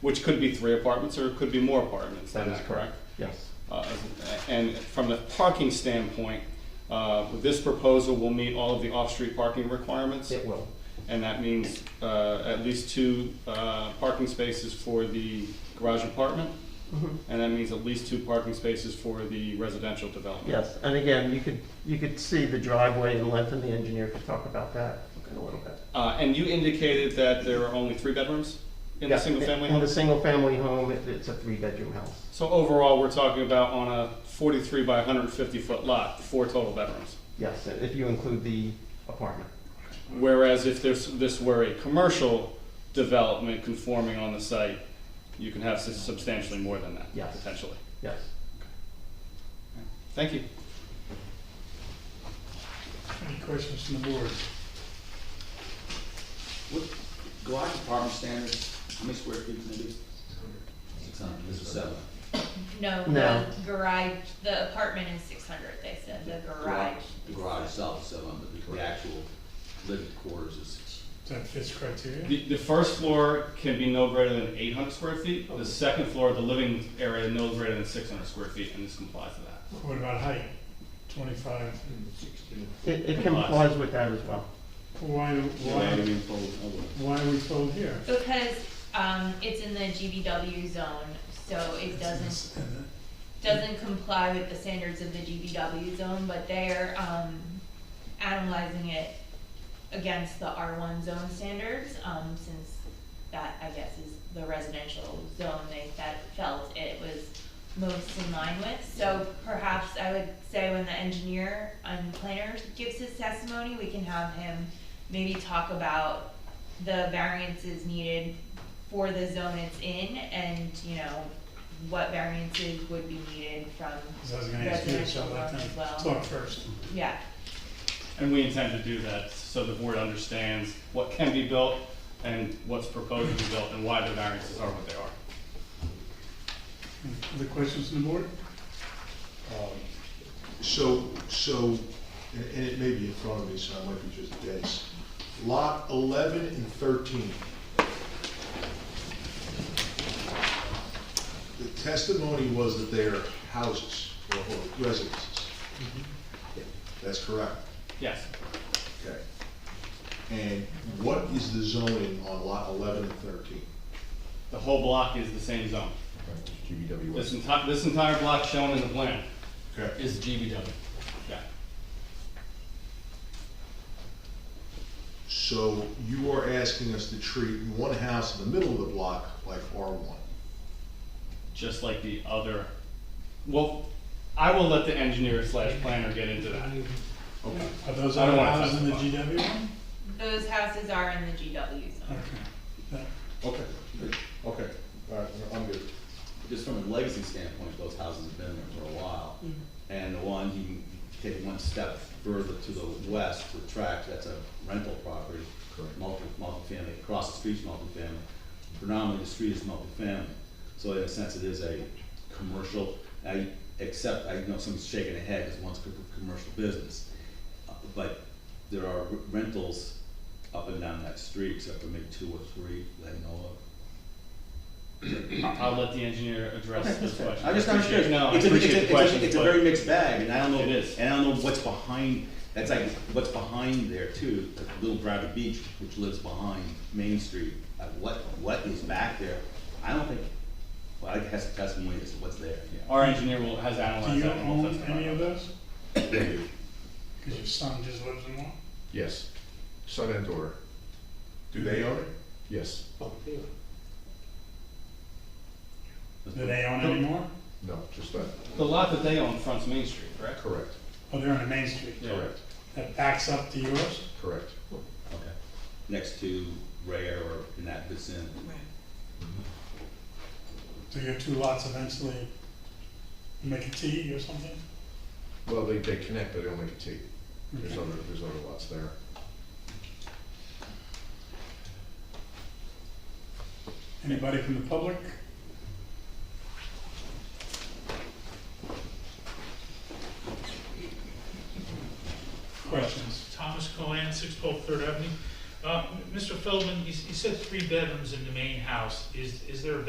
which could be three apartments or it could be more apartments, That is is that correct? Yes. Uh, And from the parking standpoint, uh, this proposal will meet all of the off-street parking requirements? It will. And that means uh, at least two uh, parking spaces for the garage apartment? And that means at least two parking spaces for the residential development? Yes, and again, you could, you could see the driveway and length, and the engineer could talk about that in a little bit. Uh, And you indicated that there are only three bedrooms in the Yeah, single-family In the home? single-family home, it- it's a three-bedroom house. So overall, we're talking about on a 43 by 150-foot lot, four total bedrooms? Yes, if you include the apartment. Whereas if this, this were a commercial development conforming on the site, you can have sus- substantially more than that, Yes. potentially. Yes. Thank you. Any questions from the board? What garage apartment standards, how many square feet can it be? Six hundred, this is seven. No, No. the garage, the apartment is six hundred, they said, the garage. The garage itself is seven, but the- the actual living quarters is, That fits criteria? The, the first floor can be no greater than eight hundred square feet. The second floor, the living area, no greater than six hundred square feet, and this complies to that. What about height? Twenty-five? It, it complies with that as well. Why, why, why are we told here? Because, um, it's in the GBW zone, so it doesn't, doesn't comply with the standards of the GBW zone, but they're, um, analyzing it against the R one zone standards, um, since that, I guess, is the residential zone they fe- felt it was most in line with. So perhaps I would say when the engineer and planner gives his testimony, we can have him maybe talk about the variances needed for the zone it's in and, you know, what variances would be needed from, 'Cause I was gonna ask you, so let them Residential as well. talk first. yeah. And we intend to do that so the board understands what can be built and what's proposed to be built and why the variances are what they are. Other questions from the board? So, so, and and it may be in front of me, so I might be just a guess. Lot 11 and 13. The testimony was that they are houses or or residences. That's correct, Yes. okay. And what is the zoning on lot 11 and 13? The whole block is the same zone. This entire, this entire block shown in the plan Okay, is GBW. Yeah. so you are asking us to treat one house in the middle of the block like R1. just like the other, well, I will let the engineer slash planner get into that. Okay. Are those I don't other wanna houses in the testify. GW one? Those houses are in the GW zone. Okay. Uh, That- Okay, okay, all right, I'm good. just from a legacy standpoint, those houses have been there for a while. And the one, you can take one step further to the west, the tract, that's a rental property. Correct. Multi, multifamily, across the street's multifamily, predominantly the street is multifamily. So in a sense, it is a commercial, I, except, I know someone's shaking their head, because one's a commercial business. Uh, But there are rentals up and down that street, except for maybe two or three that I know of. I'll let the engineer address this question. I just not sure. Appreciate- No, I It's a- it's a- appreciate it's the a- question, It's a very but mixed bag, and I don't know. It is. And I don't know what's behind, that's like, what's behind there too, like Little Bradley Beach, which lives behind Main Street. Like what, what is back there? I don't think, well, I guess the testimony is what's there, yeah. our engineer will, has Do analyzed you that. and will own testify any about of that. those? Because your son just lives in one? Yes, son and daughter, Do they own it? yes, Do they own any more? no, just that, The lot that they own fronts Main Street, correct? correct, Oh, they're on the main street. Yeah. correct, That backs up to yours? correct. Okay. Next to Rare or in that vicinity. Do your two lots eventually make a T or something? Well, they, they connect, but they don't make a T. There's other, there's other lots there. Anybody from the public? Questions? Thomas Colan, six twelve Third Avenue. Uh, Mr. Feldman, you s- you said three bedrooms in the main house. Is, is there a